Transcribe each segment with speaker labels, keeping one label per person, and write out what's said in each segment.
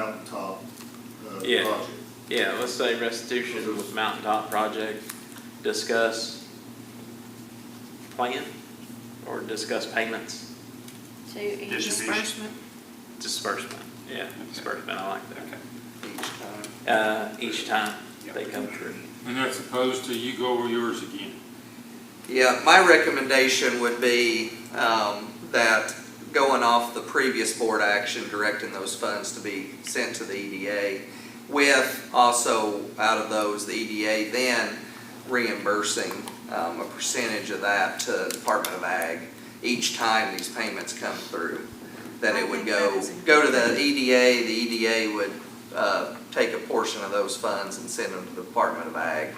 Speaker 1: mountaintop uh,
Speaker 2: Yeah.
Speaker 1: project.
Speaker 2: Yeah, let's say restitution with mountaintop project, discuss plan or discuss payments,
Speaker 3: To each
Speaker 4: Distribution.
Speaker 3: disbursement.
Speaker 2: disbursement. Yeah, disbursement, I like
Speaker 4: Okay.
Speaker 2: that. Uh, each time they
Speaker 4: Yeah.
Speaker 2: come through.
Speaker 5: And that's opposed to you go over yours again.
Speaker 6: Yeah, my recommendation would be um, that going off the previous board action, directing those funds to be sent to the EDA, with also out of those, the EDA then reimbursing um, a percentage of that to Department of Ag each time these payments come through. Then it would go, go to the EDA, the EDA would uh, take a portion of those funds and send them to the Department of Ag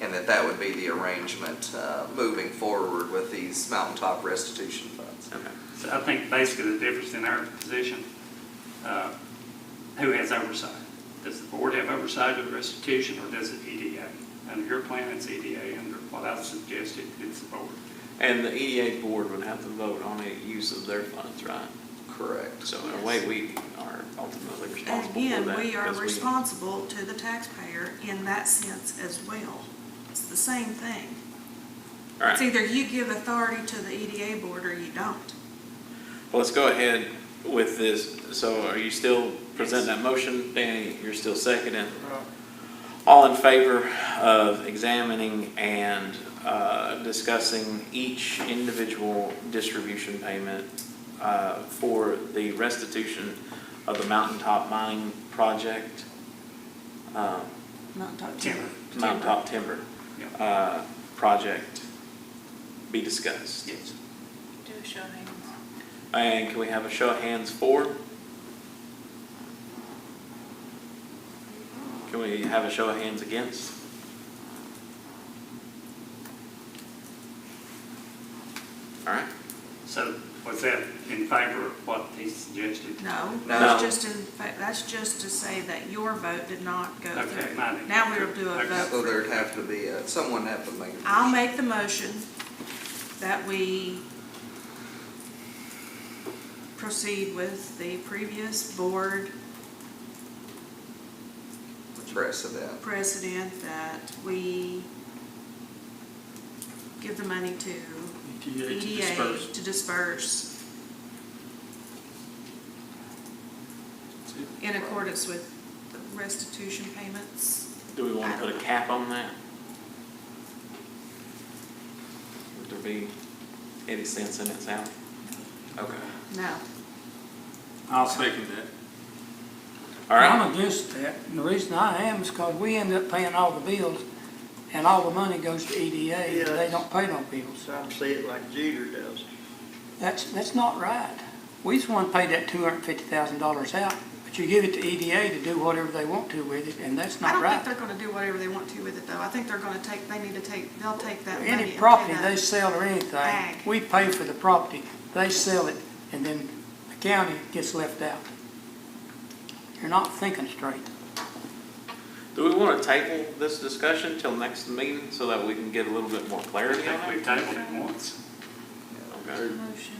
Speaker 6: and that that would be the arrangement uh, moving forward with these mountaintop restitution funds.
Speaker 2: Okay.
Speaker 4: So I think basically the difference in our position, uh, who has oversight? Does the board have oversight of restitution or does it EDA? Under your plan, it's EDA. Under what I suggested, it's the board.
Speaker 2: And the EDA board would have to vote on the use of their funds, right?
Speaker 6: Correct.
Speaker 2: So in a way, we are ultimately responsible
Speaker 7: And
Speaker 2: for that.
Speaker 7: again, we are
Speaker 2: because
Speaker 7: responsible to the taxpayer in that sense as well. It's the same thing.
Speaker 2: All right.
Speaker 7: It's either you give authority to the EDA board or you don't.
Speaker 2: Well, let's go ahead with this. So are you still presenting that motion? Danny, you're still seconding? All in favor of examining and uh, discussing each individual distribution payment uh, for the restitution of the Mountaintop Mining Project, um,
Speaker 7: Not talking.
Speaker 4: Timber.
Speaker 2: Mountaintop Timber
Speaker 4: Yeah.
Speaker 2: uh, Project be discussed?
Speaker 4: Yes.
Speaker 3: Do a show of hands.
Speaker 2: And can we have a show of hands for? Can we have a show of hands against? All right,
Speaker 4: So was that in favor of what he suggested?
Speaker 7: No,
Speaker 6: No.
Speaker 7: that's just in, fact, that's just to say that your vote did not go
Speaker 4: Okay,
Speaker 7: through.
Speaker 4: mine.
Speaker 7: Now we will do a
Speaker 4: Okay.
Speaker 6: So
Speaker 7: vote.
Speaker 6: there'd have to be, a- someone have to make. a
Speaker 7: I'll
Speaker 6: motion.
Speaker 7: make the motion that we proceed with the previous board
Speaker 6: Precedent.
Speaker 7: precedent that we give the money to
Speaker 5: EDA to
Speaker 7: EDA
Speaker 5: disperse.
Speaker 7: to disperse in accordance with the restitution payments.
Speaker 2: do we want to put a cap on that? Would there be any sense in it, Sal? Okay,
Speaker 7: No.
Speaker 5: I'll second that.
Speaker 2: all right,
Speaker 8: I'm against that, and the reason I am is because we end up paying all the bills, and all the money goes to EDA, and they don't pay no bills.
Speaker 9: Some see it like Jeter does.
Speaker 8: That's, that's not right. We just want to pay that two hundred and fifty thousand dollars out, but you give it to EDA to do whatever they want to with it, and that's
Speaker 7: I
Speaker 8: not
Speaker 7: don't think
Speaker 8: right.
Speaker 7: they're gonna do whatever they want to with it, though. I think they're gonna take, they need to take, they'll take that money. and
Speaker 8: Any
Speaker 7: pay
Speaker 8: property
Speaker 7: that.
Speaker 8: they sell or anything,
Speaker 7: Ag.
Speaker 8: we pay for the property, they sell it, and then the county gets left out. You're not thinking straight.
Speaker 2: do we want to table this discussion till next meeting so that we can get a little bit more
Speaker 4: I
Speaker 2: clarity
Speaker 4: think
Speaker 2: on
Speaker 4: we've
Speaker 2: it?
Speaker 4: tabled it once.
Speaker 2: Okay.
Speaker 3: Motion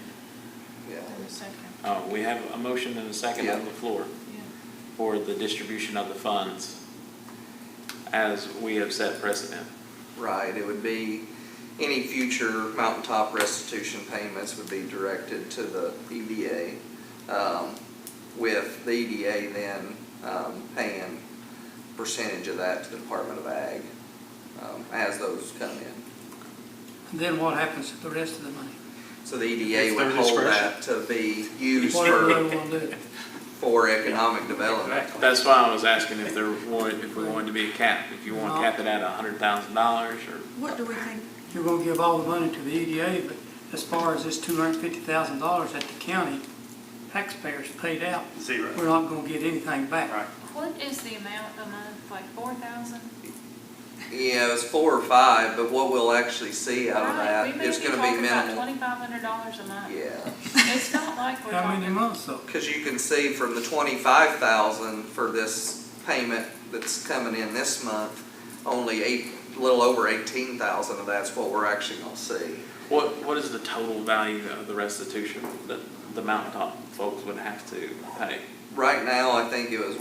Speaker 6: Yeah.
Speaker 3: in a second.
Speaker 2: Uh, we have a motion and a second on
Speaker 6: Yeah.
Speaker 2: the floor
Speaker 3: Yeah.
Speaker 2: for the distribution of the funds as we have set precedent.
Speaker 6: Right, it would be, any future mountaintop restitution payments would be directed to the EDA, um, with the EDA then um, paying percentage of that to the Department of Ag um, as those come in.
Speaker 8: And then what happens to the rest of the money?
Speaker 6: So the EDA
Speaker 5: It's
Speaker 6: would
Speaker 5: their
Speaker 6: hold
Speaker 5: discretion.
Speaker 6: that to be used
Speaker 8: Whatever they
Speaker 6: for,
Speaker 8: want to do.
Speaker 6: for economic development.
Speaker 4: Exactly.
Speaker 2: That's why I was asking if there wanted, if we wanted to be a cap, if you want to cap it at a hundred thousand dollars or,
Speaker 7: What do we think?
Speaker 8: You're gonna give all the money to the EDA, but as far as this two hundred and fifty thousand dollars that the county taxpayers paid out,
Speaker 4: Zero.
Speaker 8: we're not gonna get anything
Speaker 4: Right.
Speaker 8: back.
Speaker 3: What is the amount a month, like four thousand?
Speaker 6: Yeah, it was four or five, but what we'll actually see out of that is gonna be minimal.
Speaker 3: Twenty-five hundred dollars a month.
Speaker 6: Yeah.
Speaker 3: It's not like we're
Speaker 8: How many
Speaker 3: talking.
Speaker 8: months though?
Speaker 6: Because you can see from the twenty-five thousand for this payment that's coming in this month, only eight, a little over eighteen thousand of that's what we're actually gonna see.
Speaker 2: what, what is the total value of the restitution that the mountaintop folks would have to pay?
Speaker 6: Right now, I think it was